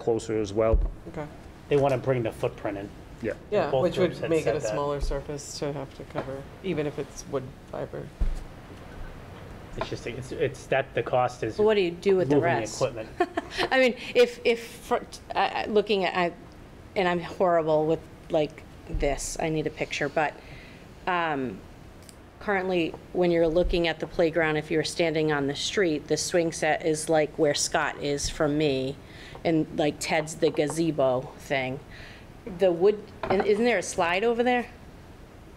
closer as well. Okay. They want to bring the footprint in. Yeah. Yeah, both which groups would had make it said a that. smaller surface to have to cover, even if it's wood fiber. It's just, it's, it's that the cost is But what do you do with the moving the rest? equipment. I mean, if, if, for- I- I- looking at, I- and I'm horrible with like this, I need a picture, but um, currently, when you're looking at the playground, if you're standing on the street, the swing set is like where Scott is from me, and like Ted's the gazebo thing. The wood, and isn't there a slide over there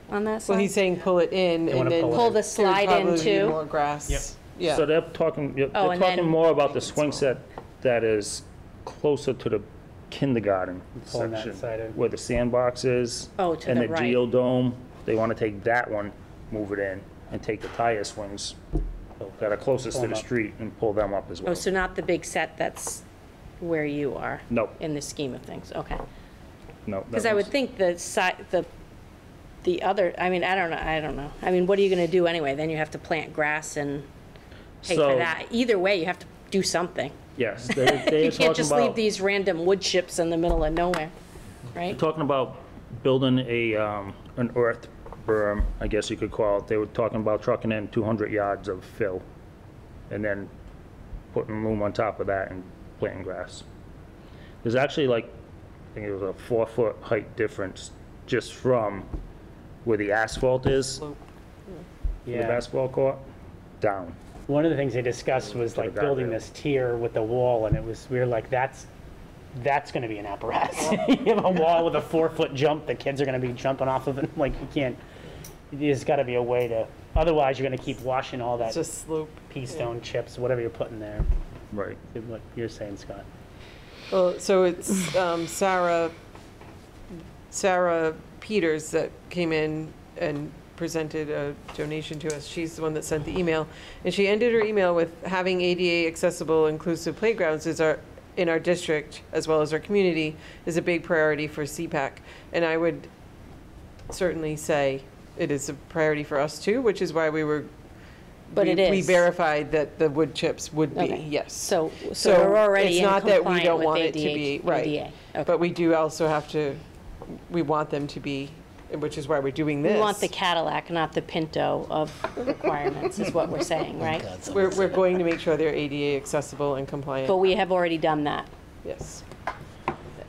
on that side? So he's saying pull it in wanna and then. pull it Pull the there'd slide in probably be too? More grass. Yeah. So they're talking, yeah, Oh, they're and then- talking more about the swing set that is closer to the kindergarten Pulling that section, side in. where the sandbox is. Oh, to the And the right. geodome, they want to take that one, move it in, and take the tire swings that are closest Pull to 'em the up. street and pull them up as Oh, well. so not the big set that's where you are? No, In the scheme of things, okay. no. Because I would think the side, the, the other, I mean, I don't know, I don't know. I mean, what are you gonna do anyway? Then you have to plant grass and pay for So- that. Either way, you have to do something. Yes, they, they You are can't talking just leave about, these random wood chips in the middle of nowhere, right? talking about building a, um, an earth berm, I guess you could call it. They were talking about trucking in 200 yards of fill and then putting loom on top of that and planting grass. There's actually like, I think it was a four-foot height difference just from where the asphalt is, the Yeah. basketball court, down. One of the things they discussed was To the like building guardrail. this tier with the wall and it was, we were like, that's, that's going to be an apparatus. You have a wall with a four-foot jump, the kids are going to be jumping off of it, like you can't, there's got to be a way to, otherwise you're going to keep washing all that It's just slope. pea stone chips, whatever you're putting there. Right. What you're saying, Scott. Well, so it's um, Sarah, Sarah Peters that came in and presented a donation to us. She's the one that sent the email. And she ended her email with having ADA accessible inclusive playgrounds is our, in our district as well as our community is a big priority for CPAC. And I would certainly say it is a priority for us too, which is why we were. But we- it We is. verified that the wood chips would be, Okay. yes. So, so we're already It's in not that we compliant don't with want it to ADA. be, right. ADA, okay. But we do also have to, we want them to be, which is why we're doing this. We want the Cadillac, not the Pinto of requirements, is what we're saying, right? We're, we're going to make sure they're ADA accessible and compliant, But we have already done that. yes.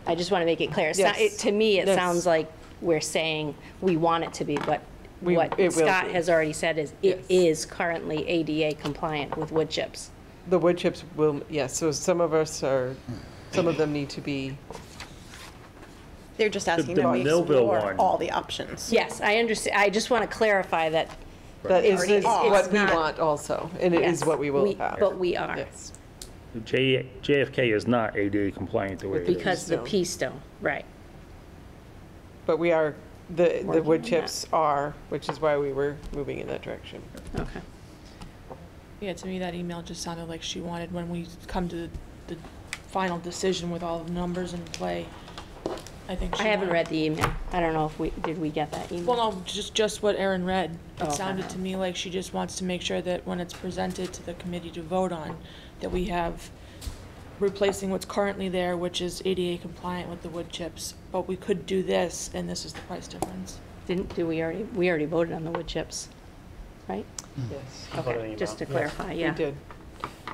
I just want to make it clear. It's not- Yes. it- To me, it Yes. sounds like we're saying we want it to be, but We- what it will Scott be. has already said is Yes. it is currently ADA compliant with wood chips. The wood chips will, yes, so some of us are, some of them need to be, They're just asking the that we Millville explore one. all the options. Yes, I understand. I just want to clarify that. that is Already is is. what It's we not- want also, and it is yes, what we will have. But we are, Yes, J, JFK is not ADA compliant the way it is. because the Stone. P stone, right. but we are, the, the Working on wood that. chips are, which is why we were moving in that direction. Okay. Yeah, to me, that email just sounded like she wanted, when we come to the final decision with all the numbers in play, I think she I haven't wanted- read the email. I don't know if we, did we get that email? Well, no, just, just what Erin read. Oh, It okay. sounded to me like she just wants to make sure that when it's presented to the committee to vote on, that we have replacing what's currently there, which is ADA compliant with the wood chips, but we could do this, and this is the price difference. Didn't, do we already, we already voted on the wood chips, right? Yes, Voted on the Okay, just to email. clarify, we yeah. did,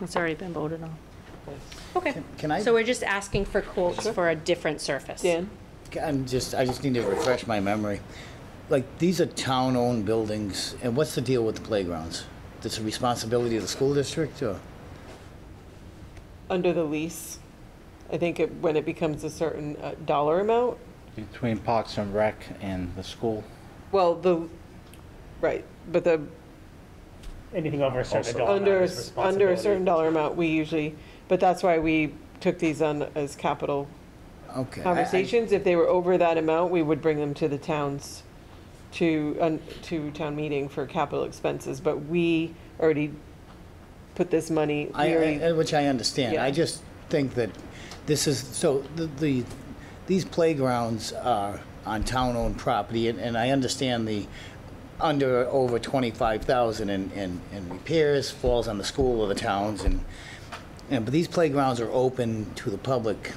It's already been voted on. yes. Okay. Can I, So we're just asking for quotes for a different surface. Dan? I'm just, I just need to refresh my memory. Like, these are town-owned buildings, and what's the deal with the playgrounds? This a responsibility of the school district, or? under the lease. I think it, when it becomes a certain uh, dollar amount, Between Parks and Rec and the school. well, the, right, but the, Anything over a certain Also- dollar amount under, is s- under a certain responsibility. dollar amount, we usually, but that's why we took these on as capital Okay. I- I- conversations. If they were over that amount, we would bring them to the towns, to, un- to town meeting for capital expenses, but we already put this money, we I- already I, which I understand. I Yeah. just think that this is, so the, the, these playgrounds are on town-owned property, and, and I understand the under, over 25,000 in, in, in repairs falls on the school or the towns, and, and, but these playgrounds are open to the public